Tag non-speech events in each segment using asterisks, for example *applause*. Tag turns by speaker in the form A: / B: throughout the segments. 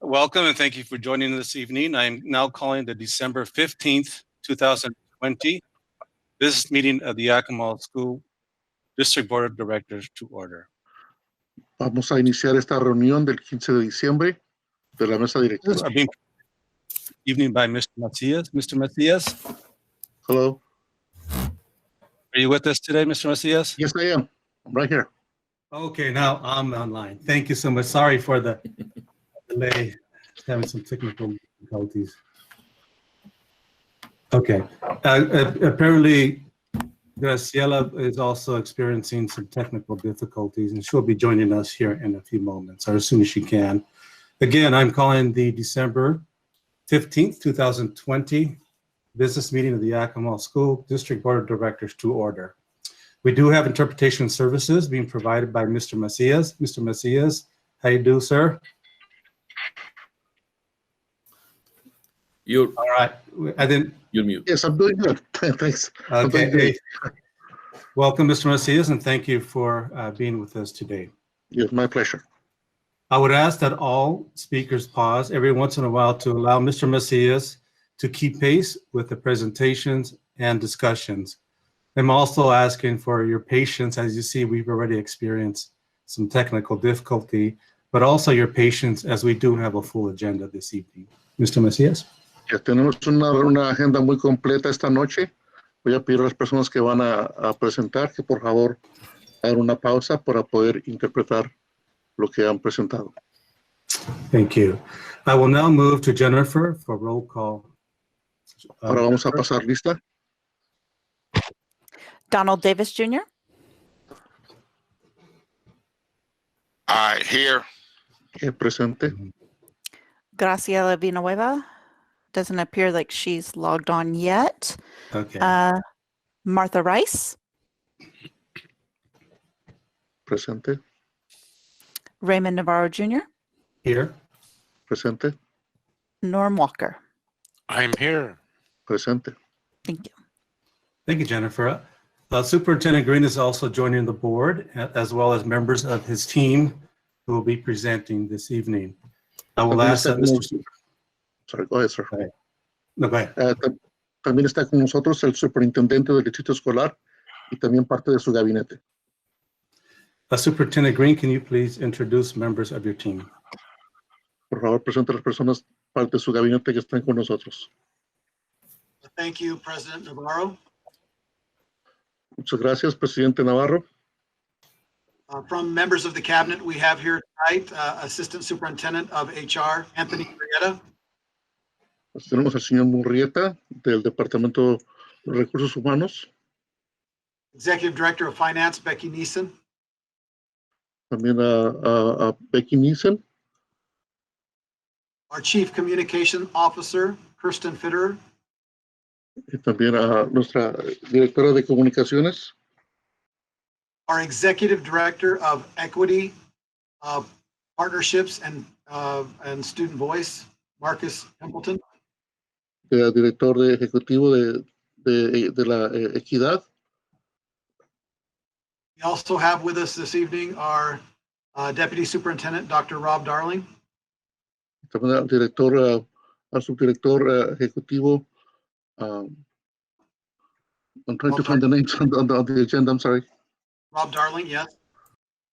A: Welcome and thank you for joining this evening. I am now calling the December 15th, 2020 business meeting of the Yakima School District Board of Directors to order.
B: Vamos a iniciar esta reunión del 15 de diciembre de la mesa
A: This
B: directiva.
A: is being- Evening by Mr. Macias. Mr. Macias,
B: Hello,
A: are you with us today, Mr. Macias?
B: yes I am, I'm right here.
C: Okay, now I'm online. Thank you so much. Sorry for the delay. Just Having some technical difficulties. Okay, Uh, uh, apparently Graciela is also experiencing some technical difficulties and she'll be joining us here in a few moments or as soon as she can. Again, I'm calling the December 15th, 2020 business meeting of the Yakima School District Board of Directors to order. We do have interpretation services being provided by Mr. Macias. Mr. Macias, how you do, sir?
D: You're
C: All right, I didn't,
D: you're mute.
B: Yes, I'm doing good, *laughs* thanks.
C: okay.
B: Okay.
C: Welcome, Mr. Macias, and thank you for uh, being with us today.
B: It's my pleasure.
C: I would ask that all speakers pause every once in a while to allow Mr. Macias to keep pace with the presentations and discussions. I'm also asking for your patience. As you see, we've already experienced some technical difficulty, but also your patience as we do have a full agenda this evening. Mr. Macias?
B: Ya tenemos una, una agenda muy completa esta noche. Voy a pedir a las personas que van a, a presentar que por favor hagan una pausa para poder interpretar lo que han presentado.
C: Thank you. I will now move to Jennifer for roll call. Uh,
B: Ahora vamos a pasar lista.
E: Donald Davis Jr.,
F: Aye, here.
B: Eh, Presente.
E: Graciela Villanueva. Doesn't appear like she's logged on yet.
C: Okay,
E: Uh, Martha Rice,
B: Presente.
E: Raymond Navarro Jr.,
C: here.
B: Presente.
E: Norm Walker.
F: I'm here.
B: Presente.
E: Thank you.
C: Thank you, Jennifer. Uh, Superintendent Green is also joining the board, a- as well as members of his team who will be presenting this evening. I will
B: También
C: ask that
B: está con
C: Mr.
B: nos- Sorry, go ahead, sir.
C: No, go ahead.
B: Ah, ta- también está con nosotros el superintendente del distrito escolar y también parte de su gabinete.
C: Uh, Superintendent Green, can you please introduce members of your team?
B: Por favor, presente a las personas, parte de su gabinete que están con nosotros.
G: Thank you, President Navarro.
B: Muchas gracias, presidente Navarro.
G: Uh, From members of the cabinet, we have here tonight uh, Assistant Superintendent of HR, Anthony Marietta,
B: Pues tenemos al señor Murrieta del Departamento de Recursos Humanos,
G: Executive Director of Finance, Becky Neeson,
B: también a, a- a Becky Nissen,
G: our Chief Communication Officer, Kirsten Fitterer,
B: y también a nuestra directora de comunicaciones,
G: our Executive Director of Equity, uh, Partnerships and, uh, and Student Voice, Marcus Templeton,
B: eh, director de ejecutivo de, de- de la eh, equidad,
G: We also have with us this evening our uh, Deputy Superintendent, Dr. Rob Darling,
B: también al director, ah, al subdirector ah, ejecutivo. um, I'm trying to find the names on the, on the- on the agenda, I'm sorry.
G: Rob Darling, yes.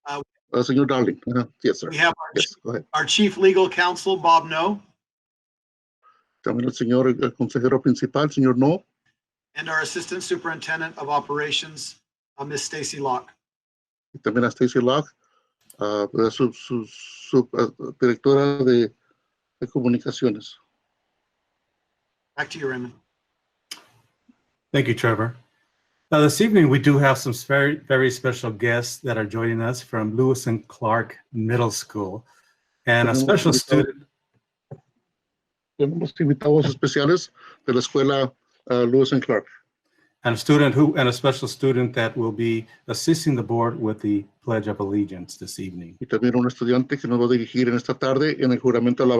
B: Uh, Señor Darling, uh, yes, sir.
G: We have our-
B: Yes, go ahead.
G: our Chief Legal Counsel, Bob No,
B: También el señor eh, consejero principal, señor No,
G: and our Assistant Superintendent of Operations, uh, Ms. Stacy Locke.
B: y también a Stacy Locke, ah, la sub- sub- sub- ah, directora de, de comunicaciones.
G: Back to you, Raymond.
C: Thank you, Trevor. Now, this evening, we do have some very, very special guests that are joining us from Lewis and Clark Middle School. And a special student,
B: Tenemos invitados especiales de la escuela ah, Lewis and Clark.
C: and a student who, and a special student that will be assisting the board with the Pledge of Allegiance this evening.
B: Y también un estudiante que nos va a dirigir en esta tarde en el juramento a la